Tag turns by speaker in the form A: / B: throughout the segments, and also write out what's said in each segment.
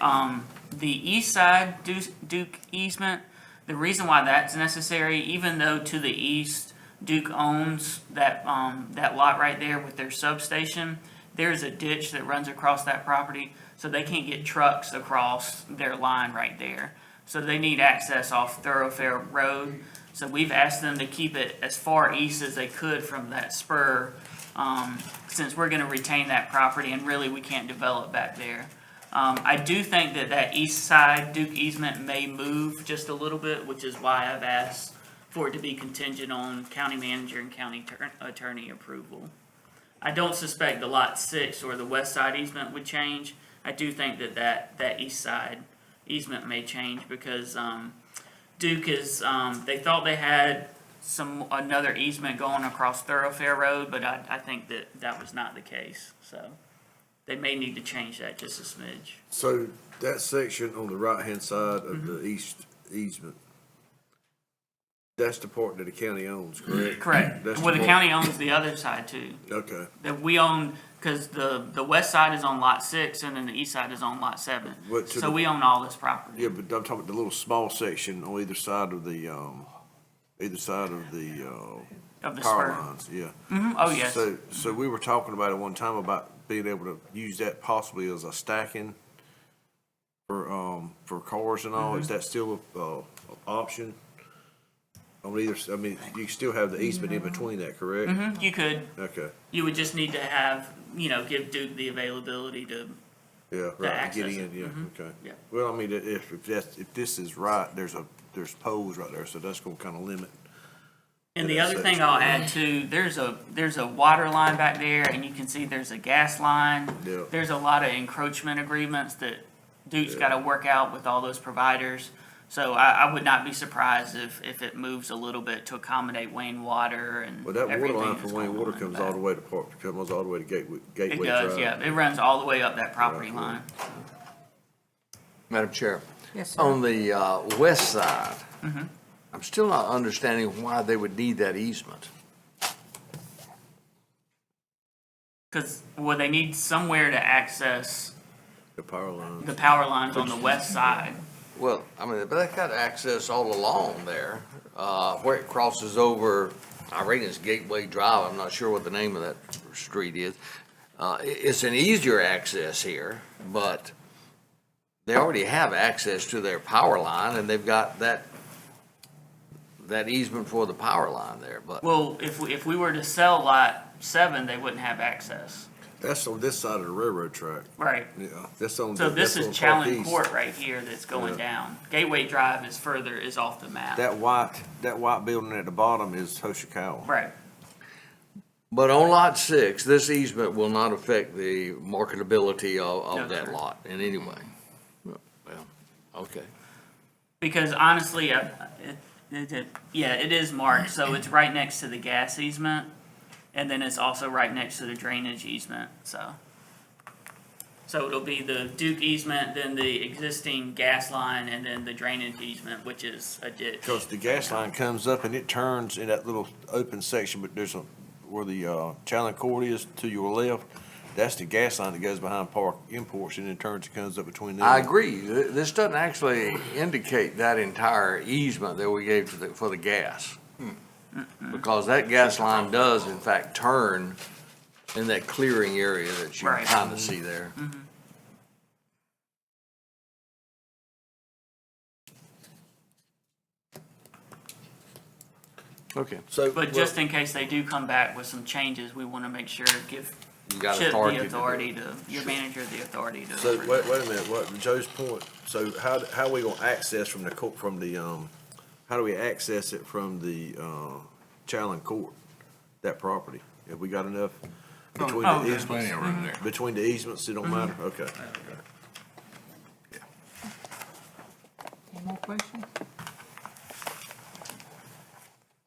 A: um, the east side Duke, Duke easement, the reason why that's necessary, even though to the east Duke owns that, um, that lot right there with their substation, there's a ditch that runs across that property, so they can't get trucks across their line right there. So they need access off thoroughfare road. So we've asked them to keep it as far east as they could from that spur, um, since we're gonna retain that property and really we can't develop back there. Um, I do think that that east side Duke easement may move just a little bit, which is why I've asked for it to be contingent on county manager and county tur- attorney approval. I don't suspect the lot six or the west side easement would change. I do think that that, that east side easement may change because, um, Duke is, um, they thought they had some, another easement going across thoroughfare road, but I, I think that that was not the case, so. They may need to change that just a smidge.
B: So that section on the right-hand side of
A: Mm-hmm.
B: the east easement, that's the part that the county owns, correct?
A: Correct.
B: That's
A: Well, the
B: part-
A: county owns the other side too.
B: Okay,
A: That we own, because the, the west side is on lot six and then the east side is on lot seven.
B: What to
A: So
B: the-
A: we own all this property.
B: yeah, but I'm talking about the little small section on either side of the, um, either side of the, uh,
A: Of the
B: power
A: spur.
B: lines, yeah.
A: Mhm, Oh, yes.
B: So, so we were talking about it one time about being able to use that possibly as a stacking for, um, for cars and all, is
A: Mm-hmm.
B: that still a, uh, a option? On either, s- I mean, you still have the easement in between that, correct?
A: Mhm, You could,
B: Okay,
A: you would just need to have, you know, give Duke the availability to,
B: yeah, right,
A: access
B: get
A: it, Mm-hmm.
B: in, yeah, okay.
A: Yeah.
B: Well, I mean, i- if, if that's, if this is right, there's a, there's poles right there, so that's gonna kinda limit.
A: And the
B: Yeah, that's
A: other
B: it.
A: thing I'll add too, there's a, there's a water line back there and you can see there's a gas line.
B: Yeah.
A: There's a lot of encroachment agreements that Duke's gotta work out with all those providers. So I, I would not be surprised if, if it moves a little bit to accommodate Wayne Water and
B: Well, that water
A: everything
B: line
A: that's
B: from Wayne
A: going
B: Water
A: on in
B: comes all the
A: back.
B: way to Park, comes all the way to Gateway,
A: It
B: Gateway Drive.
A: does, yeah. It runs all the way up that property
B: Right, right.
A: line.
C: Madam Chair.
D: Yes, sir. Mm-hmm.
C: On the uh, west side, I'm still not understanding why they would need that easement.
A: Cause, well, they need somewhere to access
B: The power line.
A: the power lines on the west side.
C: Well, I mean, but they got access all along there, uh, where it crosses over, I read it's Gateway Drive, I'm not sure what the name of that street is. Uh, i- It's an easier access here, but they already have access to their power line, and they've got that, that easement for the power line there, but.
A: Well, if, we- if we were to sell lot seven, they wouldn't have access.
B: That's on this side of the railroad track.
A: Right.
B: Yeah, that's on.
A: So
B: the-
A: this is
B: that's on
A: Challen
B: Parkees.
A: Court right here that's going down. Gateway Drive is further, is off the map.
B: That white, that white building at the bottom is Hoshikawa.
A: Right,
C: But on lot six, this easement will not affect the marketability of,
A: No,
C: of that
A: sir.
C: lot in any way. Well, okay.
A: because honestly, I, it- it, it, yeah, it is marked, so it's right next to the gas easement. And then it's also right next to the drainage easement, so. So it'll be the Duke easement, then the existing gas line, and then the drainage easement, which is a ditch.
B: Cause the gas line comes up and it turns in that little open section, but there's a, where the, uh, Challen Court is to your left. That's the gas line that goes behind Park Imports and then turns and comes up between them.
C: I agree. Th- This doesn't actually indicate that entire easement that we gave to the, for the gas.
A: Hmm.
C: Because that gas line does in fact turn in that clearing area that you
A: Right. Mm-hmm.
C: kind of see there. Okay.
B: So.
A: But just in case they do come back with some changes, we wanna make sure, give
C: You got
A: Chip
C: authority
A: the
C: to do it.
A: authority to, your manager the authority to.
B: So,
A: approve.
B: wait, wait a minute, what, Joe's point, so how, how we gonna access from the court, from the, um, how do we access it from the, uh, Challen Court, that property? Have we got enough between
A: Oh,
B: the
A: there's
B: easements? Between the easements, it don't
A: Mm-hmm.
B: matter, okay.
D: Any more questions?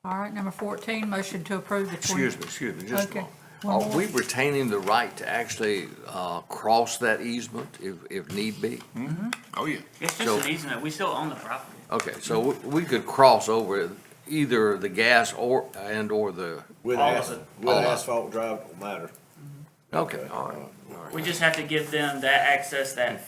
D: All right, number 14, motion to approve the 20.
C: Excuse me, excuse me, just a
D: Okay.
C: moment.
D: One
C: Are
D: more.
C: we retaining the right to actually uh, cross that easement if, if need be?
E: Oh, yeah.
A: It's
C: so-
A: just an easement, we still own the property.
C: Okay, so we- we could cross over either the gas or, and/or the,
B: With
A: All of
B: asphalt,
A: it.
B: with
C: All of it.
B: asphalt drive, it don't matter.
C: okay, all right, all right.
A: We just have to give them that access that